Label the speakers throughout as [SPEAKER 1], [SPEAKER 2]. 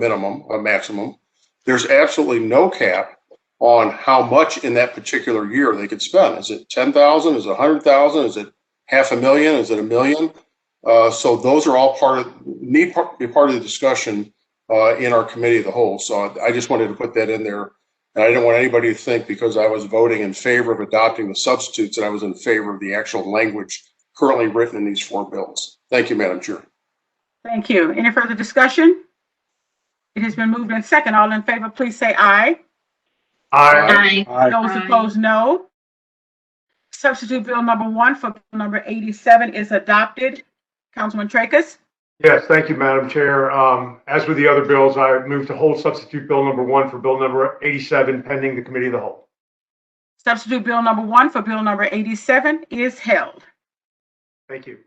[SPEAKER 1] minimum, a maximum. There's absolutely no cap on how much in that particular year they could spend. Is it ten thousand? Is it a hundred thousand? Is it half a million? Is it a million? Uh, so those are all part of, need part, be part of the discussion, uh, in our committee of the whole. So I- I just wanted to put that in there. And I didn't want anybody to think because I was voting in favor of adopting the substitutes that I was in favor of the actual language currently written in these four bills. Thank you, Madam Chair.
[SPEAKER 2] Thank you. Any further discussion? It has been moved in second. All in favor, please say aye.
[SPEAKER 3] Uh,
[SPEAKER 1] Aye.
[SPEAKER 2] Those
[SPEAKER 3] Aye.
[SPEAKER 2] opposed, no. Substitute Bill number one for Bill number 87 is adopted. Councilman Tracus,
[SPEAKER 4] Yes, thank you, Madam Chair. Um, As with the other bills, I move to hold substitute bill number one for bill number 87 pending the committee of the whole.
[SPEAKER 2] substitute Bill number one for Bill number 87 is held.
[SPEAKER 4] Thank you.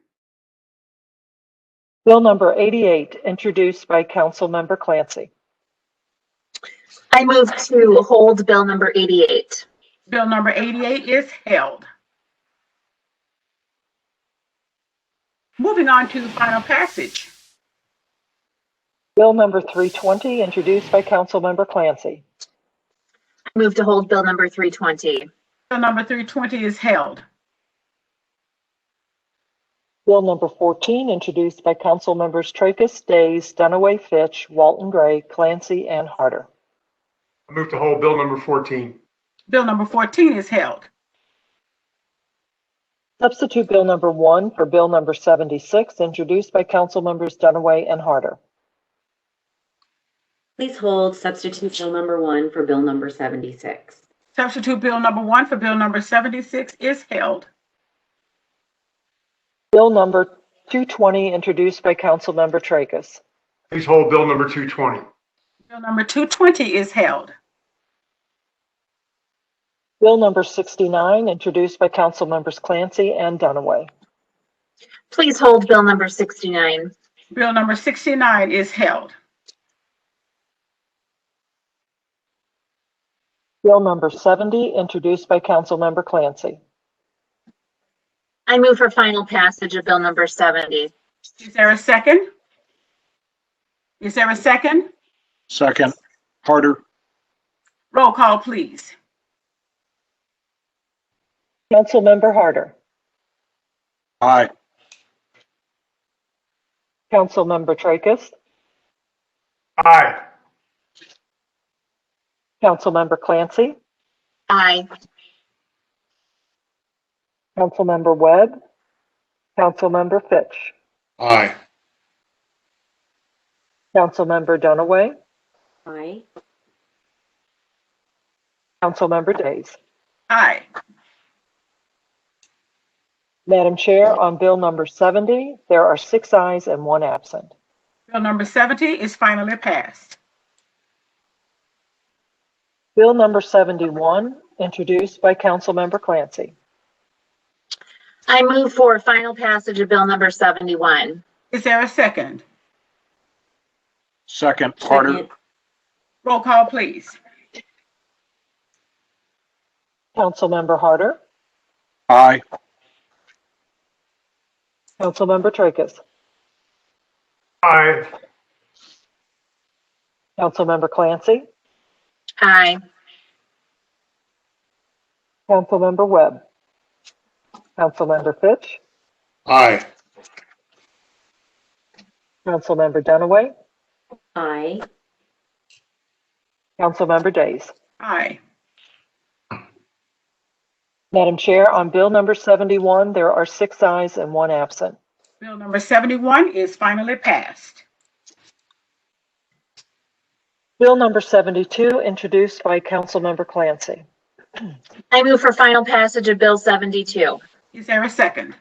[SPEAKER 5] Bill number 88, introduced by Councilmember Clancy.
[SPEAKER 3] I move to hold bill number 88.
[SPEAKER 2] Bill number 88 is held. Moving on to final passage.
[SPEAKER 5] Bill number 320, introduced by Councilmember Clancy.
[SPEAKER 3] I move to hold bill number 320.
[SPEAKER 2] Bill number 320 is held.
[SPEAKER 5] Bill number 14, introduced by Councilmembers Tracus, Days, Dunaway, Fitch, Walton Gray, Clancy, and Harder.
[SPEAKER 4] I move to hold bill number 14.
[SPEAKER 2] Bill number 14 is held.
[SPEAKER 5] Substitute Bill number 1 for Bill number 76, introduced by Councilmembers Dunaway and Harder.
[SPEAKER 6] Please hold substitute bill number one for bill number 76.
[SPEAKER 2] Substitute Bill number one for Bill number 76 is held.
[SPEAKER 5] Bill number 220, introduced by Councilmember Tracus.
[SPEAKER 4] Please hold bill number 220.
[SPEAKER 2] Bill number 220 is held.
[SPEAKER 5] Bill number 69, introduced by Councilmembers Clancy and Dunaway.
[SPEAKER 3] Please hold bill number 69.
[SPEAKER 2] Bill number 69 is held.
[SPEAKER 5] Bill number 70, introduced by Councilmember Clancy.
[SPEAKER 3] I move for final passage of bill number 70.
[SPEAKER 2] Is there a second? Is there a second?
[SPEAKER 7] Second, Harder,
[SPEAKER 2] Roll call, please.
[SPEAKER 5] Councilmember Harder.
[SPEAKER 7] aye.
[SPEAKER 5] Councilmember Tracus.
[SPEAKER 4] Aye.
[SPEAKER 5] Councilmember Clancy.
[SPEAKER 3] Aye.
[SPEAKER 5] Councilmember Webb. Councilmember Fitch.
[SPEAKER 1] Aye.
[SPEAKER 5] Councilmember Dunaway.
[SPEAKER 6] Aye.
[SPEAKER 5] Councilmember Days.
[SPEAKER 2] Aye.
[SPEAKER 5] Madam Chair, on Bill number 70, there are six ayes and one absent.
[SPEAKER 2] Bill number 70 is finally passed.
[SPEAKER 5] Bill number 71, introduced by Councilmember Clancy.
[SPEAKER 3] I move for final passage of bill number 71.
[SPEAKER 2] Is there a second?
[SPEAKER 7] Second, Harder,
[SPEAKER 6] Second.
[SPEAKER 2] Roll call, please.
[SPEAKER 5] Councilmember Harder.
[SPEAKER 7] aye.
[SPEAKER 5] Councilmember Tracus.
[SPEAKER 4] Aye.
[SPEAKER 5] Councilmember Clancy.
[SPEAKER 3] Aye.
[SPEAKER 5] Councilmember Webb. Councilmember Fitch.
[SPEAKER 1] Aye.
[SPEAKER 5] Councilmember Dunaway.
[SPEAKER 6] Aye.
[SPEAKER 5] Councilmember Days.
[SPEAKER 2] Aye.
[SPEAKER 5] Madam Chair, on Bill number 71, there are six ayes and one absent.
[SPEAKER 2] Bill number 71 is finally passed.
[SPEAKER 5] Bill number 72, introduced by Councilmember Clancy.
[SPEAKER 3] I move for final passage of bill 72.
[SPEAKER 2] Is there a second?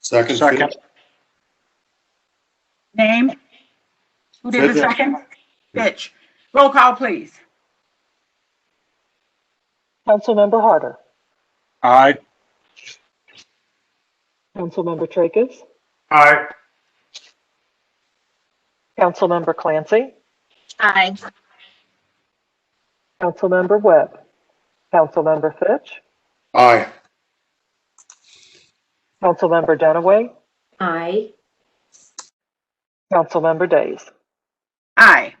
[SPEAKER 1] Second.
[SPEAKER 7] Second,
[SPEAKER 2] Name? Who did the
[SPEAKER 1] Fitch.
[SPEAKER 2] second? Fitch. Roll call, please.
[SPEAKER 5] Councilmember Harder.
[SPEAKER 7] aye.
[SPEAKER 5] Councilmember Tracus.
[SPEAKER 4] Aye.
[SPEAKER 5] Councilmember Clancy.
[SPEAKER 3] Aye.
[SPEAKER 5] Councilmember Webb. Councilmember Fitch.
[SPEAKER 1] Aye.
[SPEAKER 5] Councilmember Dunaway.
[SPEAKER 6] Aye.
[SPEAKER 5] Councilmember Days.
[SPEAKER 2] Aye.